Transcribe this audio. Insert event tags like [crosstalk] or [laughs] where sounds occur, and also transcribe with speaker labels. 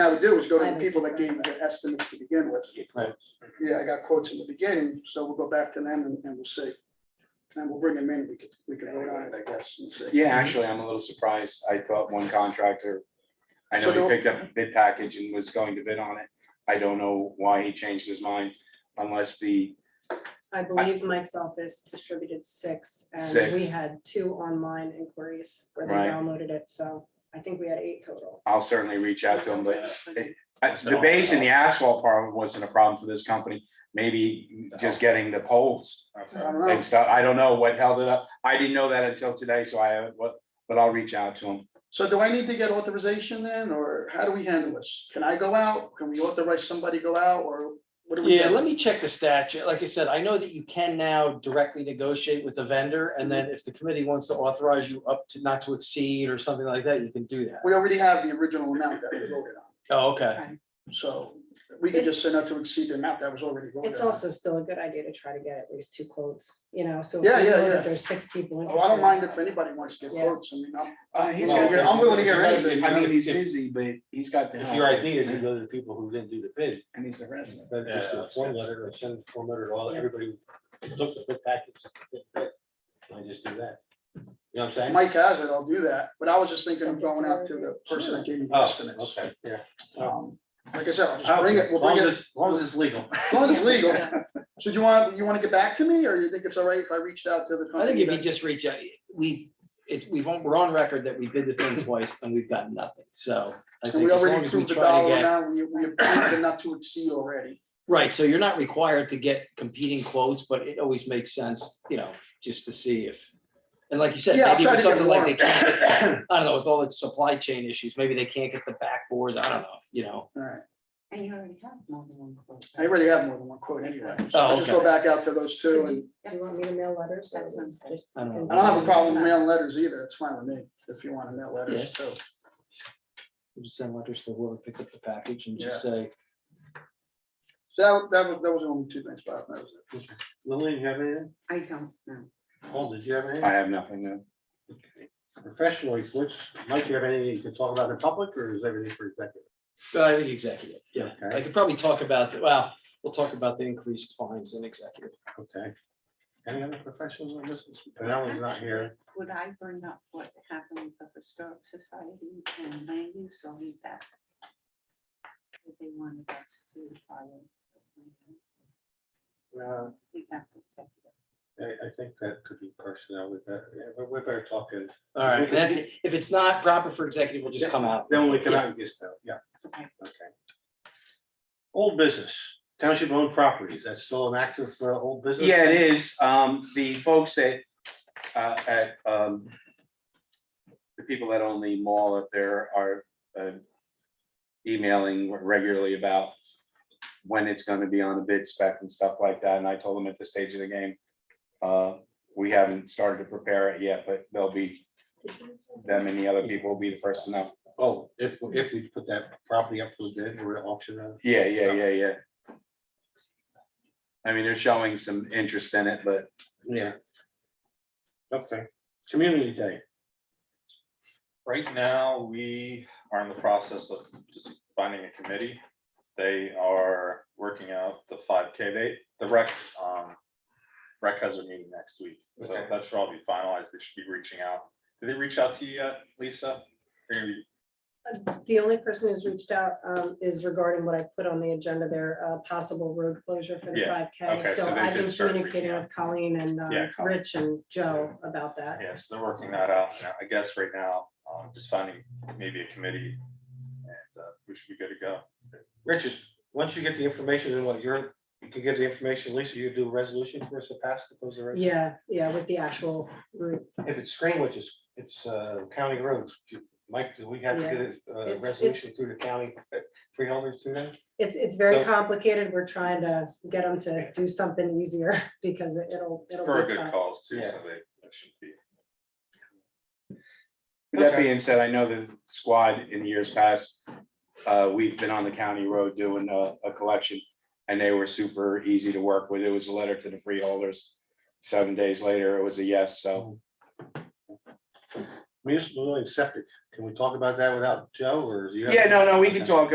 Speaker 1: would do is go to
Speaker 2: I
Speaker 1: the
Speaker 2: would
Speaker 1: people that
Speaker 2: think
Speaker 1: gave
Speaker 2: so.
Speaker 1: the estimates to begin with.
Speaker 3: Right.
Speaker 1: Yeah, I got quotes in the beginning, so we'll go back to them and, and we'll see. And we'll bring them in, we could, we could vote on it, I guess, and see.
Speaker 3: Yeah, actually, I'm a little surprised. I thought one contractor, I know
Speaker 1: So
Speaker 3: he
Speaker 1: the-
Speaker 3: picked up a bid package and was going to bid on it. I don't know why he changed his mind unless the,
Speaker 2: I believe Mike's office distributed six, and we
Speaker 3: Six.
Speaker 2: had two online inquiries where they
Speaker 3: Right.
Speaker 2: downloaded it, so I think we had eight total.
Speaker 3: I'll certainly reach out to him, but
Speaker 2: Okay.
Speaker 3: I- the base and the asphalt part wasn't a problem for this company. Maybe just getting the poles
Speaker 1: I don't know.
Speaker 3: and stuff. I don't know what held it up. I didn't know that until today, so I, but, but I'll reach out to him.
Speaker 1: So do I need to get authorization then, or how do we handle this? Can I go out? Can we authorize somebody to go out, or what do we?
Speaker 4: Yeah,
Speaker 1: do?
Speaker 4: let me check the statute. Like I said, I know that you can now directly negotiate with the vendor, and then if the committee wants to authorize you up to not to exceed or something like that, you can do that.
Speaker 1: We already have the original amount that we voted on,
Speaker 4: Oh, okay.
Speaker 1: so we could just say not to exceed the amount that was already voted
Speaker 2: It's
Speaker 1: on.
Speaker 2: also still a good idea to try to get at least two quotes, you know, so. if
Speaker 1: Yeah,
Speaker 2: we
Speaker 1: yeah,
Speaker 2: know that
Speaker 1: yeah.
Speaker 2: There's six people.
Speaker 1: Oh, I don't mind if
Speaker 2: interested.
Speaker 1: anybody wants to give
Speaker 2: Yeah.
Speaker 1: quotes, I mean, I'm,
Speaker 3: Uh,
Speaker 1: he's
Speaker 5: gonna hear- I'm willing to hear anything.
Speaker 3: I mean, he's
Speaker 5: If-
Speaker 3: busy, but he's got. the
Speaker 5: If
Speaker 3: help.
Speaker 5: your idea is to go to the people who didn't do the bid,
Speaker 3: And he's a resident.
Speaker 5: then just do a form letter or send a form letter to all, everybody who looked at the package. Can I just do that? You know what I'm
Speaker 1: if
Speaker 5: saying?
Speaker 1: Mike has it, I'll do that, but I was just thinking of going out to the person that gave me the
Speaker 5: Oh,
Speaker 1: estimates.
Speaker 5: Okay, yeah.
Speaker 1: Um, Like I said, I'll
Speaker 4: Oh,
Speaker 1: just bring it, we'll bring it, as
Speaker 5: As long as it's legal.
Speaker 1: long as it's legal.
Speaker 2: Yeah.
Speaker 1: So do you want, you want to get back to me, or you think it's all right if I reached out to the
Speaker 4: I
Speaker 1: company?
Speaker 4: think if you
Speaker 1: that-
Speaker 4: just reach out, we've, it's, we've, on- we're on record that we bid the thing twice and we've got nothing, so. I
Speaker 1: And we
Speaker 4: think as long
Speaker 1: already
Speaker 4: as we
Speaker 1: approved the
Speaker 4: try to
Speaker 1: dollar
Speaker 4: get.
Speaker 1: amount, we, we approved the not to exceed already.
Speaker 4: Right, so you're not required to get competing quotes, but it always makes sense, you know, just to see if, and like you said,
Speaker 1: Yeah, I'll
Speaker 4: maybe
Speaker 1: try
Speaker 4: with
Speaker 1: to get
Speaker 4: something like they
Speaker 1: [coughs]
Speaker 4: can't get- I don't know, with all the supply chain issues, maybe they can't get the backboards, I don't know, you know.
Speaker 1: All right,
Speaker 6: And you already have more than one quote.
Speaker 1: I already have more than one quote anyway, so
Speaker 4: Oh,
Speaker 1: I'll just go
Speaker 4: okay.
Speaker 1: back out to those two, and
Speaker 2: Do you want me to mail letters? or
Speaker 6: That sounds good.
Speaker 2: just-
Speaker 4: I don't
Speaker 1: I don't have a problem mailing letters either, it's fine with me, if you want to mail letters too.
Speaker 4: We'll Just send letters to whoever picked up the package and just say,
Speaker 1: So that, that was, that was only two things, Bob, that was it.
Speaker 5: Lillian, you have anything?
Speaker 6: I don't know.
Speaker 5: Paul, did you have
Speaker 3: I
Speaker 5: anything?
Speaker 3: have nothing new.
Speaker 5: Professional reports, Mike, you have anything you can talk about in public or is everything for executive?
Speaker 4: "Well, I think executive, yeah,
Speaker 5: Okay.
Speaker 4: I could probably talk about, the- well, we'll talk about the increased fines in executive.
Speaker 5: Okay. Any other professionals on this? Penelope's not Oh, here.
Speaker 6: Would I bring up what happened with the Historic Society and land use or leave that? If They wanted us to follow.
Speaker 5: Uh,
Speaker 6: We have to accept it.
Speaker 5: I, I think that could be personnel with that. Yeah, but we're better talking.
Speaker 4: All right, and then if it's not proper for executive, we'll just come out.
Speaker 5: Then we can, I guess, though, yeah,
Speaker 6: Okay.
Speaker 5: okay. Old business, township owned properties, that's still an active uh, old business?
Speaker 3: Yeah, it is. Um, the folks at, uh, at, um, the people that own the mall up there are, uh, emailing regularly about when it's gonna be on the bid spec and stuff like that. And I told them at this stage of the game, uh, we haven't started to prepare it yet, but they'll be, them and the other people will be the first to know.
Speaker 5: Oh, if, if we put that property up for bid, we're gonna auction uh, it.
Speaker 3: Yeah, yeah, yeah, yeah. I mean, they're showing some interest in it, but
Speaker 5: Yeah. Okay, community day,
Speaker 7: Right now, we are in the process of just finding a committee. They are working out the five K, they, the rec, um, rec has a meeting next week, so
Speaker 5: Okay.
Speaker 7: that should all be finalized, they should be reaching out. Did they reach out to you yet, Lisa? They're gonna be-
Speaker 2: The only person who's reached out um, is regarding what I put on the agenda there, uh, possible road closure for the
Speaker 7: Yeah,
Speaker 2: five K.
Speaker 7: okay,
Speaker 2: So
Speaker 7: so they
Speaker 2: I've
Speaker 7: did
Speaker 2: been
Speaker 7: start reaching
Speaker 2: communicating
Speaker 7: out.
Speaker 2: with Colleen and um,
Speaker 7: Yeah, Colleen.
Speaker 2: Rich and Joe about that.
Speaker 7: Yeah, so they're working that out, and I guess right now, um, just finding maybe a committee, and, uh, we should be good to go.
Speaker 5: Richards, once you get the information, then what, you're, you can get the information, Lisa, you do a resolution for us to pass the those are.
Speaker 2: Yeah, yeah, with the actual route.
Speaker 5: If it's Greenwich, it's, it's uh, county roads, Do- Mike, do we have to get a uh,
Speaker 2: It's-
Speaker 5: resolution
Speaker 2: it's-
Speaker 5: through the county, uh, freeholders through that?
Speaker 2: It's, it's very
Speaker 5: So-
Speaker 2: complicated. We're trying to get them to do something easier [laughs] because it- it'll, it'll
Speaker 7: For a
Speaker 2: be
Speaker 7: good
Speaker 2: tough.
Speaker 7: cause too, so
Speaker 5: Yeah.
Speaker 7: they, that should be.
Speaker 3: With That being said, I know the squad in years past, uh, we've been on the county road doing a, a collection. And they were super easy to work with. It was a letter to the freeholders. Seven days later, it was a yes, so.
Speaker 5: Municipal and septic, can we talk about that without Joe, or? do you have-
Speaker 3: Yeah, no, no, we can talk